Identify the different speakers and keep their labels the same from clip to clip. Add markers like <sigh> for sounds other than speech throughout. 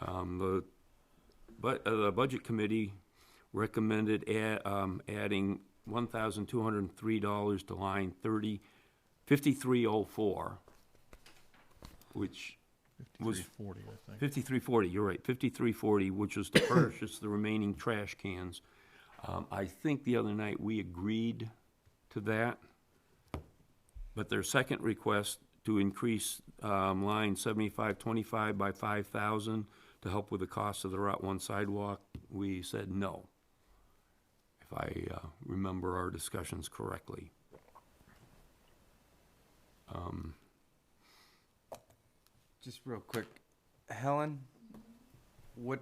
Speaker 1: Um, the, but, uh, the Budget Committee recommended add, um, adding one thousand two hundred and three dollars to line thirty, fifty-three oh four, which was
Speaker 2: 5340, I think.
Speaker 1: Fifty-three forty, you're right, fifty-three forty, which was to purchase the remaining trash cans. Um, I think the other night we agreed to that. But their second request to increase, um, line seventy-five twenty-five by five thousand to help with the cost of the Route One sidewalk, we said no. If I, uh, remember our discussions correctly.
Speaker 3: Just real quick, Helen, what,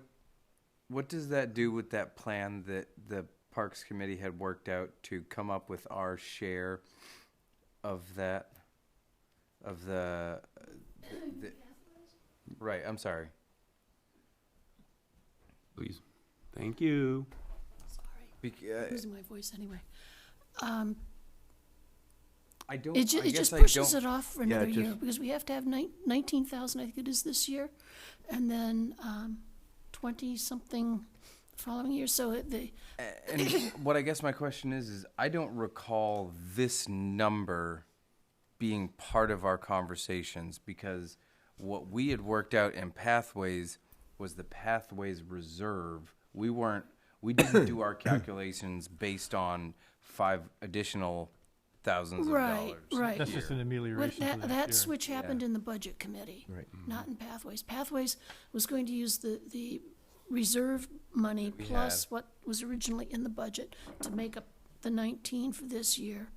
Speaker 3: what does that do with that plan that the Parks Committee had worked out to come up with our share of that, of the, uh, the- right, I'm sorry.
Speaker 1: Please, thank you.
Speaker 4: Sorry,
Speaker 3: Bec- uh,
Speaker 4: losing my voice anyway.
Speaker 3: I don't, I
Speaker 4: It ju- it
Speaker 3: guess
Speaker 4: just
Speaker 3: I
Speaker 4: pushes it
Speaker 3: don't,
Speaker 4: off for
Speaker 3: Yeah, it
Speaker 4: another year,
Speaker 3: just-
Speaker 4: because we have to have nine, nineteen thousand, I think it is this year, and then, um, twenty-something the following year, so it, the,
Speaker 3: and what I guess my question is, is I don't recall this number being part of our conversations because what we had worked out in pathways was the pathways reserve. We weren't, we didn't do
Speaker 4: <coughs>
Speaker 3: our calculations based on five additional thousands of
Speaker 4: right,
Speaker 3: dollars.
Speaker 4: right.
Speaker 2: That's just an
Speaker 4: What-
Speaker 2: amelioration for
Speaker 4: That,
Speaker 2: that
Speaker 4: that
Speaker 2: year.
Speaker 4: switch happened in the budget committee. Right.
Speaker 3: Mm-hmm.
Speaker 4: Not in Pathways. Pathways was going to use the, the reserve money plus what was originally in the budget to make up the nineteen for this year,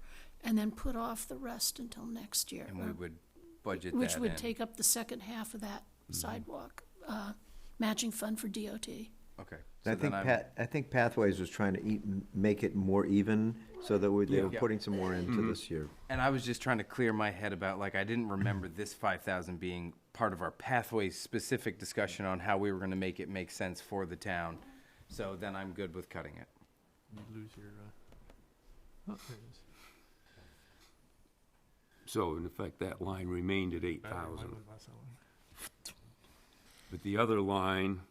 Speaker 4: and then put off the rest until next year.
Speaker 3: And we would budget
Speaker 4: Which
Speaker 3: that
Speaker 4: would
Speaker 3: in.
Speaker 4: take up the second half of that sidewalk, uh, matching fund for DOT.
Speaker 3: Okay.
Speaker 5: I
Speaker 3: so then
Speaker 5: think
Speaker 3: I'm-
Speaker 5: Pat, I think Pathways was trying to eat, make it more even, so that we, they were
Speaker 3: Yeah. Mm-hmm.
Speaker 5: putting some more into this year.
Speaker 3: And I was just trying to clear my head about like I didn't remember this five thousand being part of our pathway specific discussion on how we were going to make it make sense for the town. So then I'm good with cutting it.
Speaker 2: You lose your, uh, oh, there it is.
Speaker 1: So in effect, that line remained at eight
Speaker 2: Battery, why
Speaker 1: thousand.
Speaker 2: would I buy someone?
Speaker 1: But the other line,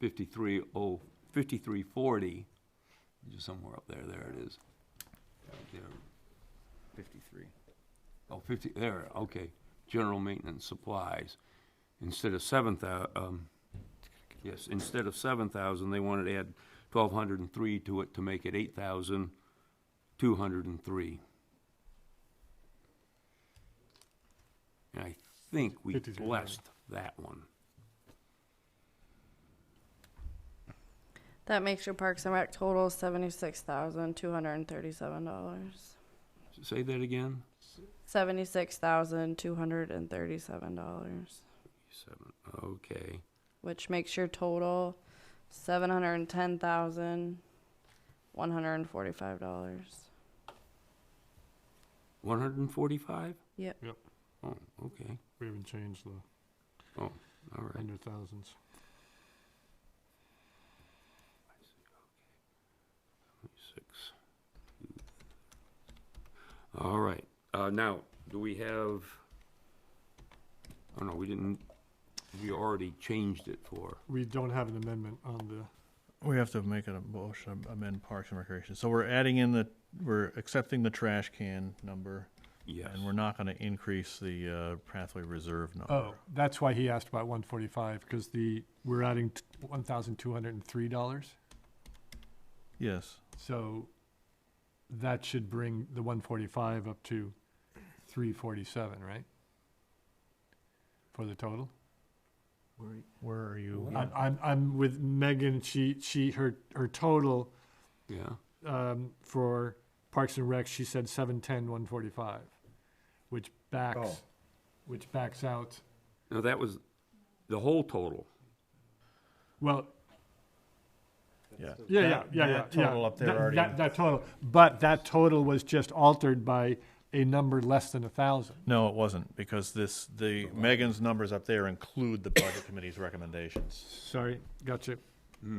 Speaker 1: fifty-three oh, fifty-three forty, just somewhere up there, there it is. Right there.
Speaker 3: Fifty-three.
Speaker 1: Oh, fifty, there, okay, general maintenance supplies. Instead of seven thou, um, yes, instead of seven thousand, they wanted to add twelve hundred and three to it to make it eight thousand two hundred and three. And I think we
Speaker 2: 53.
Speaker 1: blessed that one.
Speaker 6: That makes your Parks and Rec total seventy-six thousand two hundred and thirty-seven dollars.
Speaker 1: Say that again?
Speaker 6: Seventy-six thousand two hundred and thirty-seven dollars,
Speaker 1: Seven, okay.
Speaker 6: which makes your total seven hundred and ten thousand one hundred and forty-five dollars.
Speaker 1: One hundred and forty-five?
Speaker 6: Yep.
Speaker 2: Yep,
Speaker 1: Oh, okay.
Speaker 2: we haven't changed the
Speaker 1: Oh, all right.
Speaker 2: hundred thousands.
Speaker 1: Six. All right. Uh, now, do we have? Oh no, we didn't. We already changed it for.
Speaker 2: We don't have an amendment on the
Speaker 7: We have to make a motion, amend Parks and Recreation. So we're adding in the, we're accepting the trash can number,
Speaker 1: Yes.
Speaker 7: and we're not gonna increase the, uh, pathway reserve number.
Speaker 2: Oh, that's why he asked about one forty-five, because the, we're adding one thousand two hundred and three dollars.
Speaker 7: Yes,
Speaker 2: So that should bring the one forty-five up to three forty-seven, right? For the total?
Speaker 7: where are you?
Speaker 2: I'm, I'm, I'm with Megan, she, she, her, her total,
Speaker 1: yeah.
Speaker 2: um, for Parks and Rec, she said seven ten, one forty-five, which backs,
Speaker 5: Oh.
Speaker 2: which backs out,
Speaker 1: No, that was the whole total.
Speaker 2: well,
Speaker 7: Yeah.
Speaker 2: Yeah, yeah,
Speaker 7: That-
Speaker 2: yeah, yeah.
Speaker 7: that Total
Speaker 2: yeah.
Speaker 7: up there
Speaker 2: That-
Speaker 7: already.
Speaker 2: That, that total, but that total was just altered by a number less than a thousand.
Speaker 7: No, it wasn't, because this, the, Megan's numbers up there include the Budget Committee's recommendations.
Speaker 2: Sorry, gotcha.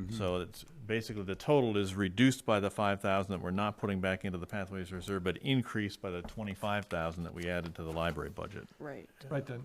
Speaker 7: So it's, basically, the total is reduced by the five thousand that we're not putting back into the pathways reserve, but increased by the twenty-five thousand that we added to the library budget.
Speaker 6: Right.
Speaker 2: Right then.